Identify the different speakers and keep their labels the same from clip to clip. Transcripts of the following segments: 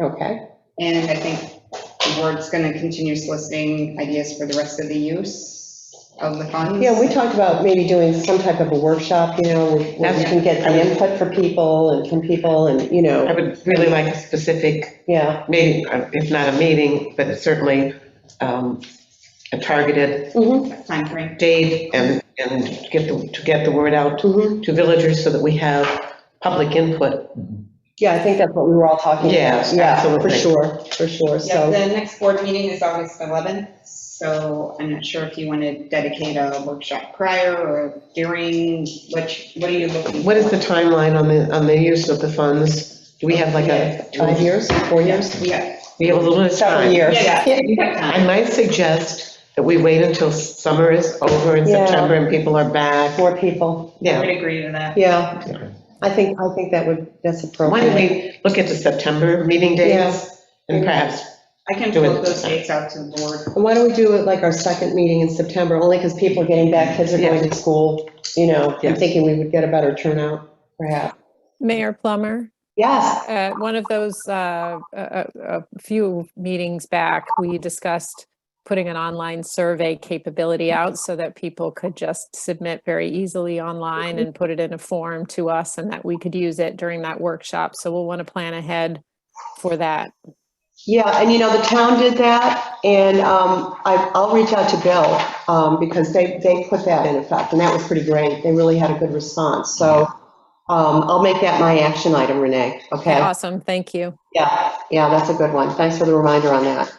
Speaker 1: Okay,
Speaker 2: And I think the board's going to continue soliciting ideas for the rest of the use of the funds.
Speaker 1: yeah, we talked about maybe doing some type of a workshop, you know, where we can get the input for people and from people and, you
Speaker 3: I
Speaker 1: know,
Speaker 3: would really like a specific,
Speaker 1: yeah.
Speaker 3: maybe, if not a meeting, but certainly um, a targeted
Speaker 1: Mhm,
Speaker 2: Timeframe.
Speaker 3: date and, and get the, to get the word out
Speaker 1: mhm.
Speaker 3: to villagers so that we have public input.
Speaker 1: Yeah, I think that's what we were all talking about.
Speaker 3: Yes,
Speaker 1: Yeah, for
Speaker 3: absolutely.
Speaker 1: sure, for sure,
Speaker 2: Yeah,
Speaker 1: so.
Speaker 2: the next board meeting is August 11th, so I'm not sure if you want to dedicate a workshop prior or during, which, what are you looking?
Speaker 3: What is
Speaker 2: for?
Speaker 3: the timeline on the, on the use of the funds? Do we have like a?
Speaker 1: Five years, four years?
Speaker 2: Yeah,
Speaker 3: We have a little bit of
Speaker 1: Several
Speaker 3: time.
Speaker 1: years.
Speaker 2: Yeah,
Speaker 3: I might suggest that we wait until summer is over in
Speaker 1: Yeah.
Speaker 3: September and people are back.
Speaker 1: More people,
Speaker 2: I would
Speaker 3: Yeah,
Speaker 2: agree to that.
Speaker 1: yeah. I think, I think that would, that's
Speaker 3: why
Speaker 1: appropriate.
Speaker 3: don't we look at the September meeting dates? And perhaps,
Speaker 2: I can
Speaker 3: Do it.
Speaker 2: float those dates out to the board.
Speaker 1: And why don't we do it like our second meeting in September, only because people are getting back, kids are going to school, you know, I'm
Speaker 3: Yes.
Speaker 1: thinking we would get a better turnout, perhaps.
Speaker 4: Mayor Plummer,
Speaker 1: Yes,
Speaker 4: at one of those, uh, a a- a few meetings back, we discussed putting an online survey capability out so that people could just submit very easily online and put it in a form to us and that we could use it during that workshop. So we'll want to plan ahead for that.
Speaker 1: yeah, and you know, the town did that, and um, I- I'll reach out to Bill, um, because they, they put that in effect, and that was pretty great, they really had a good response, so um, I'll make that my action item, Renee, okay?
Speaker 4: Awesome, thank you.
Speaker 1: Yeah, yeah, that's a good one, thanks for the reminder on that.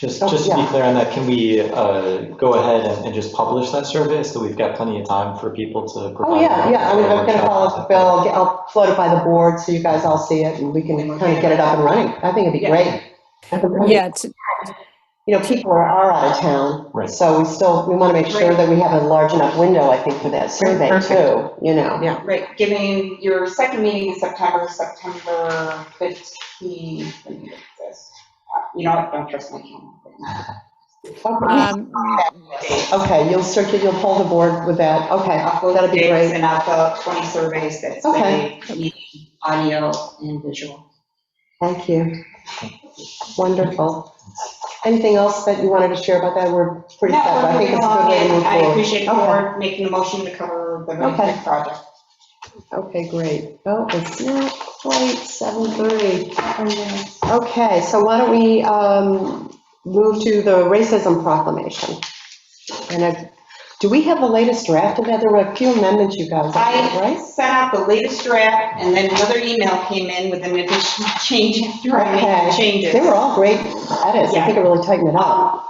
Speaker 5: Just,
Speaker 1: Oh,
Speaker 5: just to be
Speaker 1: yeah.
Speaker 5: clear on that, can we uh, go ahead and and just publish that survey so we've got plenty of time for people to provide?
Speaker 1: Oh, yeah,
Speaker 5: their-
Speaker 1: yeah, I mean,
Speaker 5: their
Speaker 1: I'm gonna follow up
Speaker 5: workshop?
Speaker 1: with Bill, I'll get- I'll float it by the board, so you guys all see it, and we can kind of get it up and running, I think it'd be
Speaker 2: Yeah.
Speaker 1: great.
Speaker 4: Yeah, t-
Speaker 1: You know, people are, are out of town.
Speaker 5: Right.
Speaker 1: So we still, we want to make sure
Speaker 2: Right.
Speaker 1: that we have a large enough window, I think, for that survey too,
Speaker 3: Perfect.
Speaker 1: you know?
Speaker 3: Yeah.
Speaker 2: Right, giving your second meeting in September, September 15th. I think it says. You know, what? don't trust my calendar.
Speaker 1: Okay.
Speaker 4: um,
Speaker 1: Okay, you'll circulate, you'll poll the board with that, okay, that'd be
Speaker 2: Dates
Speaker 1: great.
Speaker 2: And I'll fill out 20 surveys that
Speaker 1: Okay.
Speaker 2: say meeting, audio and visual.
Speaker 1: Thank you. Wonderful. Anything else that you wanted to share about that? We're pretty
Speaker 2: No,
Speaker 1: set, but I think it's a good way to move
Speaker 2: I
Speaker 1: forward.
Speaker 2: appreciate the board making the motion to cover the
Speaker 1: Okay.
Speaker 2: Millbank project.
Speaker 1: Okay, great. Oh, it's not quite 7:30. Okay, so why don't we um, move to the racism proclamation? And I- do we have the latest draft of that? There were a few amendments you guys, had,
Speaker 2: I
Speaker 1: right?
Speaker 2: sent out the latest draft, and then another email came in with an additional change after I made
Speaker 1: Okay.
Speaker 2: the changes.
Speaker 1: They were all great edits. I think it really tightened it up.
Speaker 2: Um,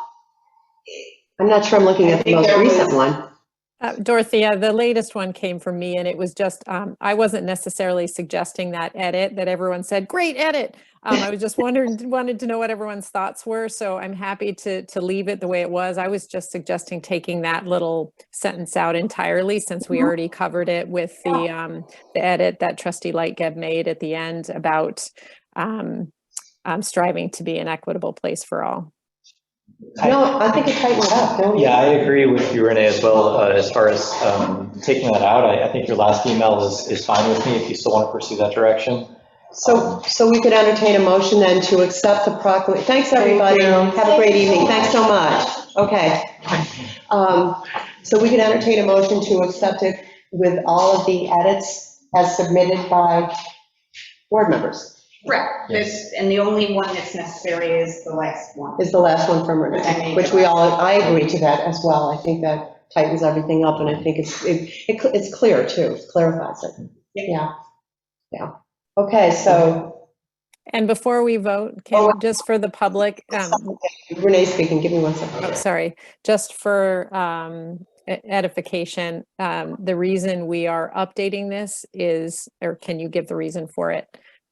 Speaker 1: I'm not sure I'm looking
Speaker 2: I
Speaker 1: at the
Speaker 2: think
Speaker 1: most
Speaker 2: there was-
Speaker 1: recent one.
Speaker 4: Uh, Dorothea, the latest one came from me and it was just, um, I wasn't necessarily suggesting that edit that everyone said, great edit. Um, I was just wondering, wanted to know what everyone's thoughts were, so I'm happy to, to leave it the way it was. I was just suggesting taking that little sentence out entirely since we already covered it with the, um, the edit that trustee Lightgeb made at the end about, um, um, striving to be an equitable place for all.
Speaker 1: No, I think it tightened it up, don't you?
Speaker 5: Yeah, I agree with you, Renee, as well, uh, as far as um, taking that out. I I think your last email is, is fine with me if you still want to pursue that direction.
Speaker 1: So, so we could entertain a motion then to accept the proclamation. Thanks, everybody. Have a great evening. Thanks so much. Okay. Um, So we could entertain a motion to accept it with all of the edits as submitted by board members,
Speaker 2: Correct, this, and the only one that's necessary is the last one.
Speaker 1: is the last one from Renee, which we all, I agree to that as well. I think that tightens everything up, and I think it's, it- it- it's clear, too, It clarifies it. Yeah, yeah. Okay, so
Speaker 4: And before we vote,
Speaker 1: Oh,
Speaker 4: can, just for the public, um,
Speaker 1: Renee speaking, give me one second.
Speaker 4: Oh, sorry, just for um, e- edification, um, the reason we are updating this is, or can you give the reason for it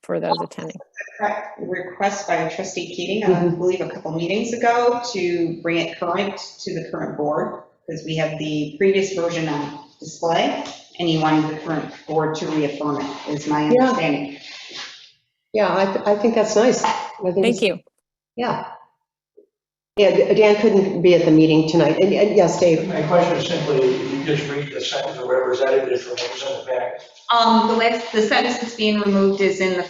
Speaker 4: for those attending?
Speaker 2: Correct Request by trustee Keating, uh, I believe a couple meetings ago, to bring it current to the current board, because we have the previous version on display, and he wanted the current board to reaffirm it, is my
Speaker 1: Yeah.
Speaker 2: understanding.
Speaker 1: Yeah, I, th- I think that's nice. I think it's-
Speaker 4: Thank you.
Speaker 1: Yeah. Yeah, Dan couldn't be at the meeting tonight, and, and yes, Dave,
Speaker 6: My question is simply, if you just read the sentence or whatever's edited from what was in the back,
Speaker 2: Um, the last, the sentence that's being removed is in the